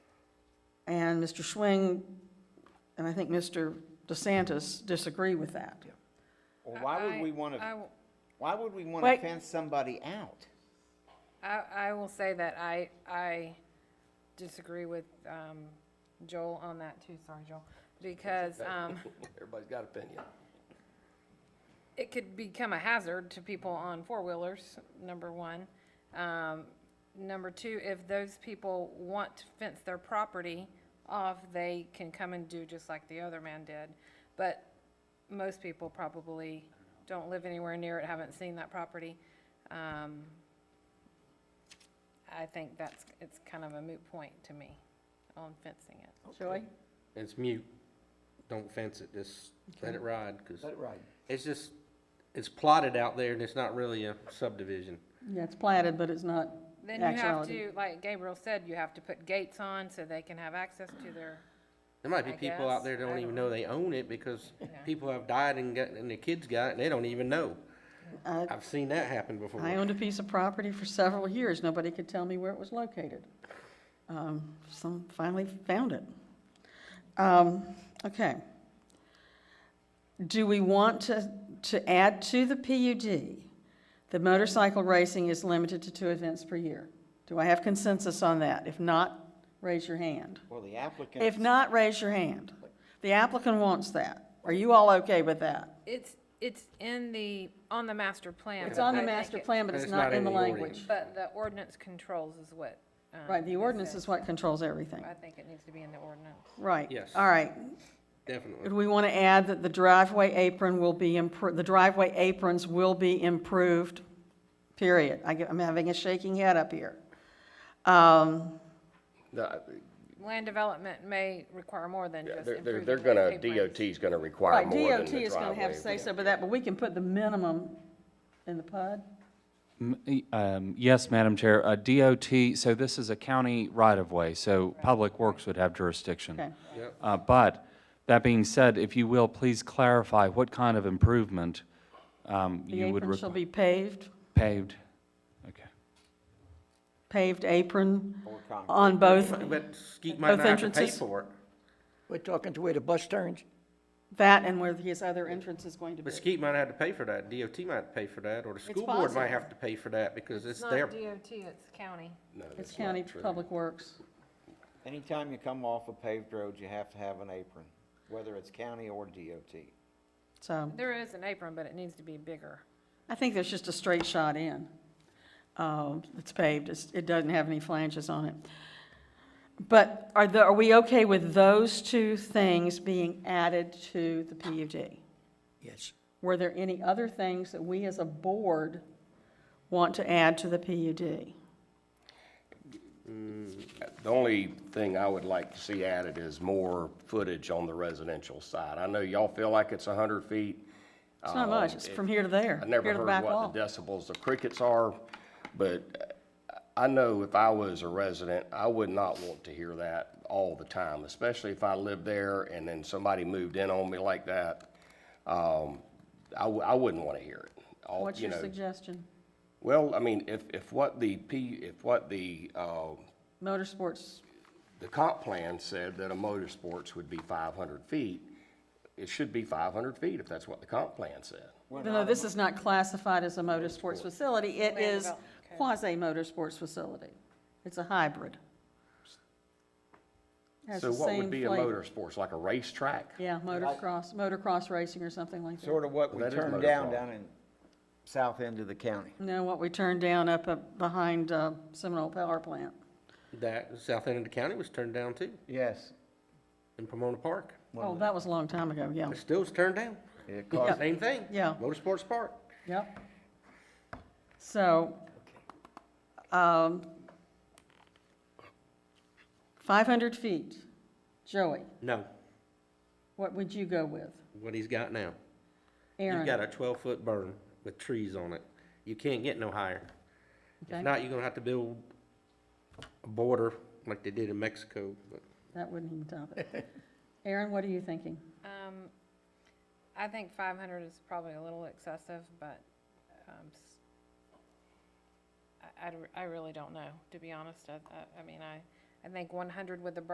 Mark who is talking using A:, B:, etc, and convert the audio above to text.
A: And Mr. Schwing, and I think Mr. DeSantis disagree with that.
B: Well, why would
C: I-
B: we want
C: I
B: to,
C: will-
B: why would we want to
A: Wait.
B: fence somebody out?
C: I, I will say that I, I disagree with um, Joel on that too, sorry, Joel, because um,
D: Everybody's got opinion.
C: it could become a hazard to people on four-wheelers, number one. Um, Number two, if those people want to fence their property off, they can come and do just like the other man did. But most people probably don't live anywhere near it, haven't seen that property. Um, I think that's, it's kind of a moot point to me on fencing it.
A: Joey?
D: It's mute. Don't fence it, just let it ride, because
B: Let it ride.
D: it's just, it's plotted out there and it's not really a subdivision.
A: Yeah, it's platted, but it's not
C: Then you have
A: actuality.
C: to, like Gabriel said, you have to put gates on so they can have access to their
D: There might be
C: I
D: people out there
C: guess,
D: that don't
C: I
D: even
C: don't
D: know they own it because people have died and got, and their kids got it and they don't even know.
A: I
D: I've seen that happen
A: Uh, I
D: before.
A: owned a piece of property for several years. Nobody could tell me where it was located. Um, Some finally found it. Um, Okay. Do we want to, to add to the PUD, the motorcycle racing is limited to two events per year? Do I have consensus on that? If not, raise your hand.
B: Well, the applicant.
A: If not, raise your hand. The applicant wants that. Are you all okay with that?
C: It's, it's in the, on the master plan.
A: It's on the
C: I think
A: master
C: it-
A: plan, but it's not in the language.
D: ordinance.
C: But the ordinance controls is what. um,
A: Right, the
C: it
A: ordinance
C: says.
A: is what controls everything.
C: I think it needs to be in the ordinance.
A: Right.
D: Yes.
A: All right. Do
D: Definitely.
A: we want to add that the driveway apron will be, impro- the driveway aprons will be improved, period? I get- I'm having a shaking head up here. Um,
E: The- uh,
C: Land development may require more than
E: yeah,
C: just
E: They're, they're,
C: improving.
E: they're gonna,
C: landscape plans.
E: DOT's gonna require
A: Right,
E: more than
A: DOT
E: the
A: is going to have say
E: driveway.
A: so, but that, but we can put the minimum in the PUD?
F: M- e- um, Yes, Madam Chair, Uh, DOT, so this is a county right-of-way, so Public Works would have jurisdiction.
A: Okay.
D: Yep.
F: Uh, But, that being said, if you will, please clarify what kind of improvement um,
A: The
F: you would
A: apron shall
F: require.
A: be paved,
F: Paved, okay.
A: paved apron
B: Or concrete.
A: on both,
D: But Skeet might
A: Both
D: not have to pay
A: entrances?
D: for it.
G: We're talking to where the bus turns?
A: that and where his other entrance is going to be.
D: But Skeet might have to pay for that, DOT might have to pay for that, or the school board
A: possible.
D: might have to pay for that because it's
C: It's not
D: their,
C: DOT, it's county.
E: No, that's
A: It's county
E: not true.
A: public works.
B: Anytime you come off a paved road, you have to have an apron, whether it's county or DOT.
A: So
C: There is an apron, but it needs to be bigger.
A: I think there's just a straight shot in. Um, It's paved, It's- it doesn't have any flanges on it. But are the, are we okay with those two things being added to the PUD?
G: Yes.
A: Were there any other things that we as a board want to add to the PUD?
E: The only thing I would like to see added is more footage on the residential side. I know y'all feel like it's hundred feet.
A: It's not much, it's from here to there,
E: Oh, I
A: here
E: never
A: to the
E: heard
A: back
E: what
A: wall.
E: the decibels of crickets are, but uh, I know if I was a resident, I would not want to hear that all the time, especially if I lived there and then somebody moved in on me like that. Um, I, w- I wouldn't want to hear it. All-
A: What's
E: you
A: your
E: know.
A: suggestion?
E: Well, I mean, if, if what the P, if what the, uh,
A: Motorsports,
E: the comp plan said that a motorsports would be five hundred feet, it should be five hundred feet if that's what the comp plan said.
A: even though this is not classified as a motorsports facility, it
C: Land
A: is
C: development, okay.
A: quasi-motorsports facility. It's a hybrid. Has
E: So
A: the
E: what
A: same
E: would be a
A: flavor.
E: motorsports, like a racetrack?
A: Yeah, motocross, motocross racing or something like that.
B: Sort of what we
E: That is
B: turned
E: motor
B: down
E: fault.
B: down in south end of the county.
A: No, what we turned down up uh, behind uh, Seminole Power Plant.
D: that, south end of the county was turned down too,
B: Yes.
D: in Pomona Park.
A: Oh, that was a long time ago, yeah.
D: It still was turned down.
B: It
A: Yeah.
D: Same thing.
A: Yeah.
D: Motorsports Park.
A: Yep. So, um, 500 feet. Joey,
D: No,
A: what would you go with?
D: what he's got now. You've
A: Aaron?
D: got a twelve-foot burn with trees on it. You can't get no higher.
A: Okay.
D: If not, you're gonna have to build a border like they did in Mexico, but
A: That wouldn't even top it. Aaron, what are you thinking?
C: Um, I think five hundred is probably a little excessive, but, um, s- I, I'd- I really don't know, to be honest. I, I, I mean, I, I think one hundred with the